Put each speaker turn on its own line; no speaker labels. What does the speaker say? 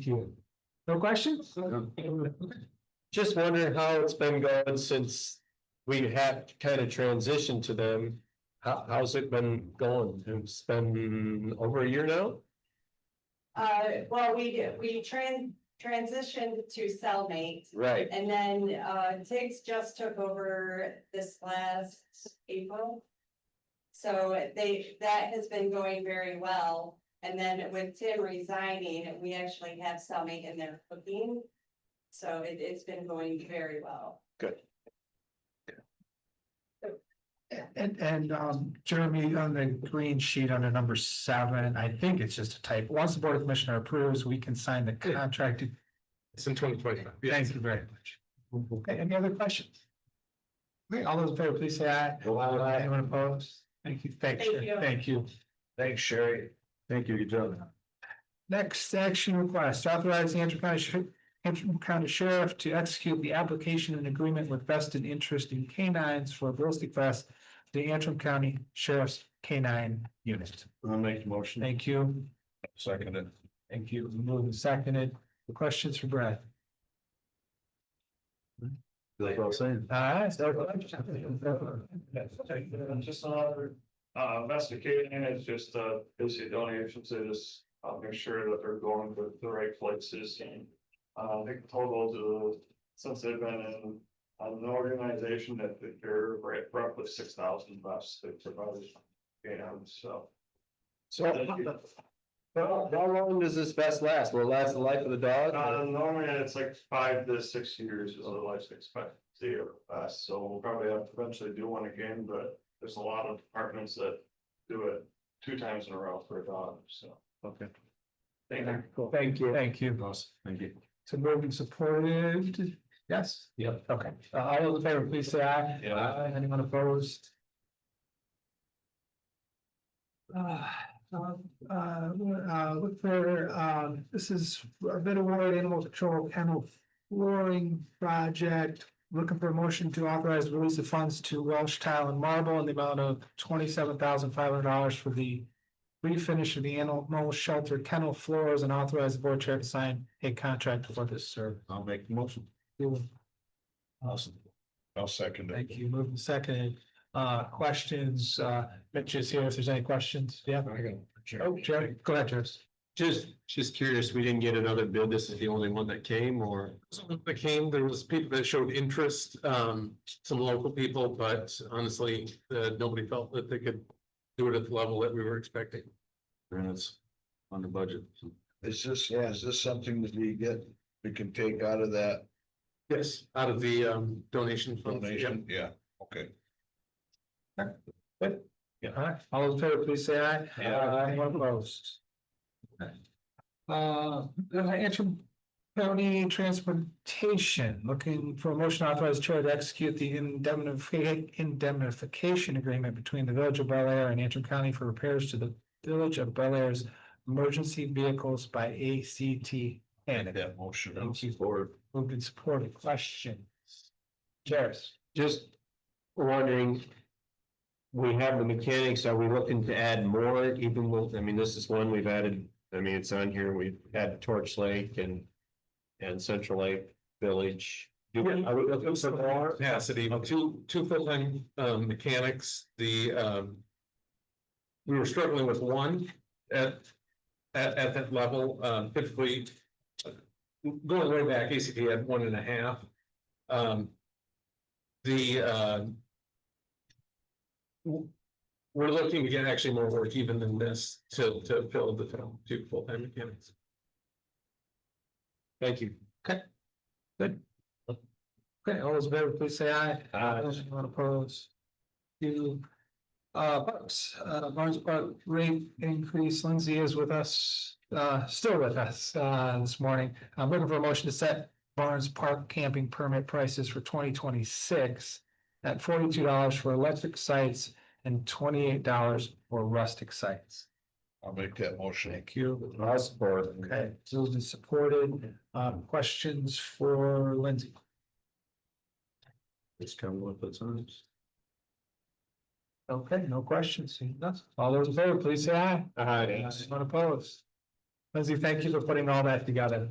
you. No questions?
Just wondering how it's been going since we had kind of transitioned to them. How, how's it been going? It's been over a year now?
Uh, well, we, we tran- transitioned to cellmate.
Right.
And then, uh, Tiggs just took over this last April. So they, that has been going very well. And then with Tim resigning, we actually have cellmate in there cooking. So it, it's been going very well.
And, and, um, Jeremy, on the green sheet under number seven, I think it's just a type. Once the board of commissioner approves, we can sign the contract.
It's in twenty twenty-five.
Thank you very much. Okay, any other questions? Okay, all those in favor, please say aye. Anyone opposed? Thank you, thank
Thank
you,
you.
thank you.
Thanks, Sherry.
Thank you, good job.
Next action request, authorize the Antrim County Sheriff, Antrim County Sheriff to execute the application and agreement with vested interest in canines for ballistic vest. The Antrim County Sheriff's Canine Unit.
I'll make the motion.
Thank you,
Second it.
thank you. Moved and seconded. Questions for Brad?
That's what I'm saying.
Uh,
Just another, uh, investigating is just, uh, basically donations is, uh, make sure that they're going to the right places and. Uh, I think total to, since they've been in, an organization that they're right, roughly six thousand bucks they provided. You know, so.
So how, how- how long does this vest last? Will it last the life of the
Uh,
dog?
normally it's like five to six years is the life expectancy of us, so we'll probably have to eventually do one again, but there's a lot of departments that do it two times in a row for a dog, so.
Okay.
Thank you.
Thank you, thank you.
Awesome, thank you.
So moved and supported, yes?
Yep.
Okay, Uh, all those in favor, please say aye.
Yeah.
Aye. Anyone opposed? Uh, uh, uh, look for, um, this is a bid award animal control kennel flooring project. Looking for a motion to authorize release of funds to Welsh Tile and Marble in the amount of twenty-seven thousand five hundred dollars for the refinish of the animal shelter kennel floors and authorize the board chair to sign a contract for this service.
I'll make the motion. Awesome. I'll second it.
Thank you. Moving second, uh, questions, uh, Mitch is here if there's any questions. Yeah. Oh, Jerry, go ahead, Jerry.
Just, just curious, we didn't get another bid. This is the only one that came or?
Someone that came, there was people that showed interest, um, some local people, but honestly, uh, nobody felt that they could do it at the level that we were expecting.
And it's under budget.
Is this, yeah, is this something that we get, we can take out of that
Yes. Out of the, um, donation funds. Yep.
donation? Yeah, okay.
All right, all those in favor, please say aye. Aye. Anyone opposed? Uh, Antrim County Transportation, looking for a motion authorized chair to execute the indemnification, indemnification agreement between the village of Bel Air and Antrim County for repairs to the village of Bel Air's emergency vehicles by ACT. And
That motion.
Thank you. moved and supported, question. Charis.
Just wondering. We have the mechanics, are we looking to add more even with, I mean, this is one we've added, I mean, it's on here, we've had Torch Lake and. And Central Lake Village. Do we- are we looking for more?
Capacity, two, two full-time, um, mechanics, the, um. We were struggling with one at, at, at that level, um, typically. Going way back, ACT had one and a half. Um. The, uh. w- We're looking to get actually more work even than this to, to fill the town, two full-time mechanics.
Thank you.
Okay, all those in favor, please say aye.
Aye.
Anyone opposed? You. Uh, Parks, uh, Barnes Park rate increase, Lindsay is with us, uh, still with us, uh, this morning. I'm looking for a motion to set Barnes Park camping permit prices for twenty twenty-six. At forty-two dollars for electric sites and twenty-eight dollars for rustic sites.
I'll make that motion.
Thank you.
I'll support.
Okay, so it's been supported, um, questions for Lindsay?
It's coming up at times.
Okay, no questions, seeing none. All those in favor, please say aye.
All right.
Anyone opposed? Lindsay, thank you for putting all that together.